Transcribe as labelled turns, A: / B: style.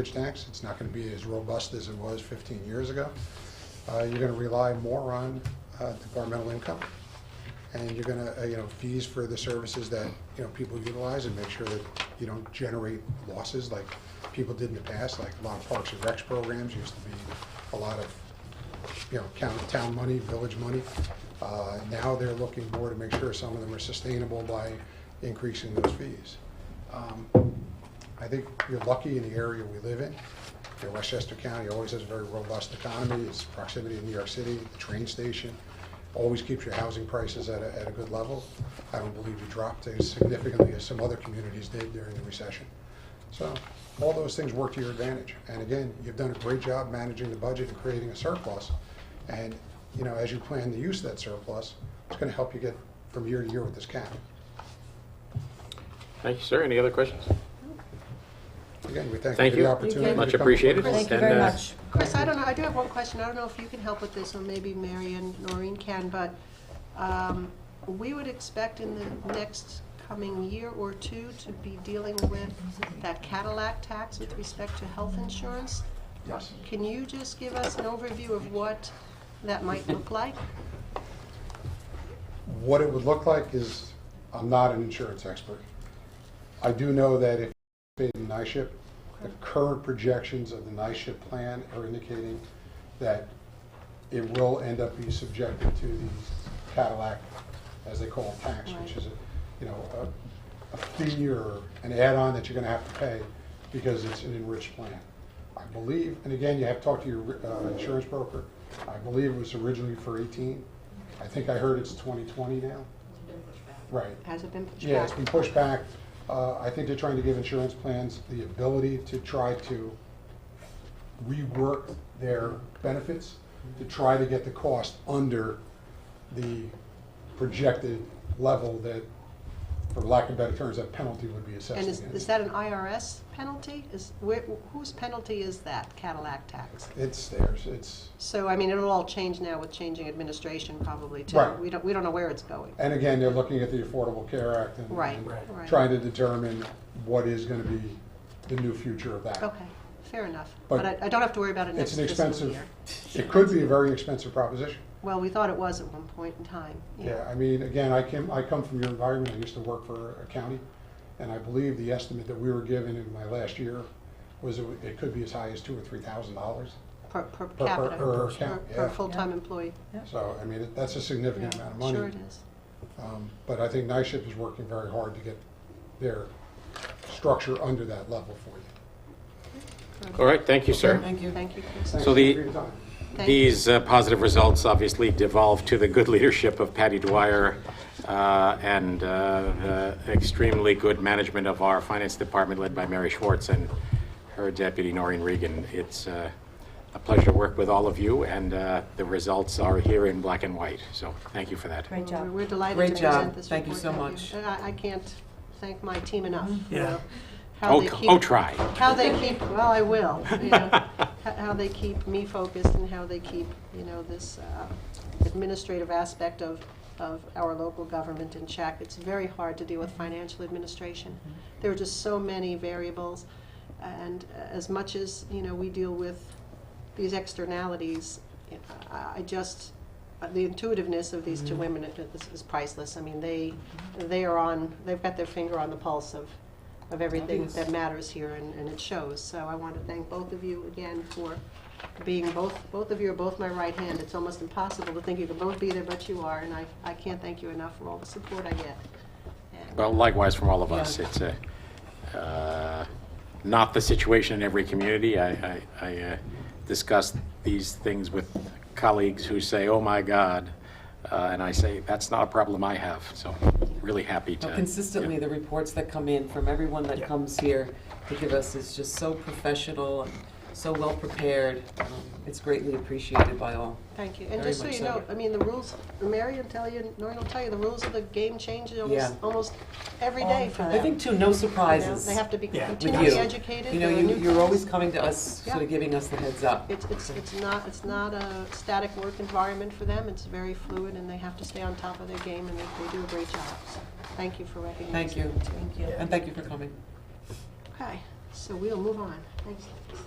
A: Bridge tax, it's not going to be as robust as it was 15 years ago. Uh, You're going to rely more on uh, departmental income, and you're going to, you know, fees for the services that, you know, people utilize, and make sure that you don't generate losses like people did in the past, like a lot of parks and recs programs used to be a lot of, you know, county, town money, village money. Uh, Now they're looking more to make sure some of them are sustainable by increasing those fees. Um, I think you're lucky in the area we live in. You know, Westchester County always has a very robust economy, its proximity to New York City, the train station, always keeps your housing prices at a, at a good level. I don't believe you dropped as significantly as some other communities did during the recession. So, all those things work to your advantage. And again, you've done a great job managing the budget and creating a surplus. And, you know, as you plan the use of that surplus, it's gonna help you get from year to year with this cap.
B: Thank you, sir. Any other questions?
A: Again, we thank you
B: Thank
A: for the
B: you.
A: opportunity. to
B: Much
A: come
B: appreciated.
A: before us.
C: Thank you
B: And,
C: very
B: uh,
C: much.
D: Chris, I don't know, I do have one question, I don't know if you can help with this, or maybe Mary and Noreen can, but um, we would expect in the next coming year or two to be dealing with that Cadillac tax with respect to health insurance.
A: Yes.
D: Can you just give us an overview of what that might look like?
A: What it would look like is, I'm not an insurance expert. I do know that if paid in NISHIP, the current projections of the NISHIP plan are indicating that it will end up being subjected to the Cadillac, as they call it, tax, which
D: Right.
A: is, a you know, a a fee or an add-on that you're going to have to pay because it's an enriched plan. I believe, and again, you have to talk to your uh, insurance broker, I believe it was originally for 18. I think I heard it's 2020 now. Right.
D: Has it been pushed
A: Yeah, it's
D: back?
A: been pushed back. Uh, I think they're trying to give insurance plans the ability to try to rework their benefits, to try to get the cost under the projected level that, for lack of better terms, that penalty would be assessed
D: And is,
A: against.
D: is that an IRS penalty? Is, where, whose penalty is that Cadillac tax?
A: It's theirs, it's,
D: So, I mean, it'll all change now with changing administration probably too.
A: Right.
D: We don't, we don't know where it's going.
A: and again, they're looking at the Affordable Care Act and.
D: Right,
A: and
D: right.
A: Trying to determine what is gonna be the new future of that.
D: Okay, fair enough.
A: But
D: But I, I don't have to worry about it
A: It's
D: next
A: an
D: fiscal
A: expensive,
D: year.
A: it could be a very expensive proposition.
D: Well, we thought it was at one point in time.
A: Yeah, I mean, again, I came, I come from your environment, I used to work for a county, and I believe the estimate that we were given in my last year was it it could be as high as two or three thousand dollars.
D: Per, per
A: per-
D: capita.
A: per account,
D: Per
A: yeah.
D: full-time employee.
A: So, I mean, that's a significant amount of money.
D: Sure it is.
A: Um, But I think NISHIP is working very hard to get their structure under that level for you.
B: All right, thank you, sir.
D: Thank you. Thank you, Chris.
A: Thanks
B: So the-
A: for your time.
D: Thank you.
B: These uh, positive results obviously devolve to the good leadership of Patty Dwyer uh, and uh, the extremely good management of our finance department led by Mary Schwartz and her deputy Noreen Regan. It's uh, a pleasure to work with all of you, and uh, the results are here in black and white, so thank you for that.
C: Great
D: We're
C: job.
D: we're delighted
E: Great
D: to
E: job.
D: present this report.
E: Thank you so much.
D: And I, I can't thank my team enough
E: Yeah.
D: for how
B: Oh,
D: they
B: c-
D: keep.
B: oh, try.
D: How they keep, well, I will, you know, h- how they keep me focused and how they keep, you know, this uh, administrative aspect of, of our local government in check. It's very hard to deal with financial administration. There are just so many variables. And as much as, you know, we deal with these externalities, uh, I I just, the intuitiveness of these two women is- is priceless. I mean, they, they are on, they've got their finger on the pulse of, of everything
E: Yes.
D: that matters here, and, and it shows. So I want to thank both of you again for being both, both of you are both my right hand. It's almost impossible to think you could both be there, but you are, and I, I can't thank you enough for all the support I get. And-
B: Well, likewise from all of us.
E: Yeah.
B: It's a, uh, not the situation in every community. I, I, I uh, discuss these things with colleagues who say, oh my God, uh, and I say, that's not a problem I have, so really happy to.
E: Well, Consistently, the reports that come in from everyone that comes here to give us is just so professional and so well-prepared. Um, It's greatly appreciated by all.
D: Thank you. And
E: Very
D: just so
E: much
D: you
E: so.
D: know, I mean, the rules, Mary will tell you, Noreen will tell you, the rules of the game change almost,
E: Yeah.
D: almost every day for them.
E: I think too, no
D: You know,
E: surprises
D: They have to be
F: Yeah. With
D: continually
E: you.
D: educated.
E: You know,
D: There are
E: you,
D: new-
E: you're always coming to us, sort
D: Yeah.
E: of giving us the heads up.
D: It's, it's, it's not, it's not a static work environment for them. It's very fluid, and they have to stay on top of their game, and they, they do a great job. So Thank you for recognizing.
E: Thank you.
D: Thank you.
E: And thank you for coming.
D: Okay. So we'll move on. Thanks.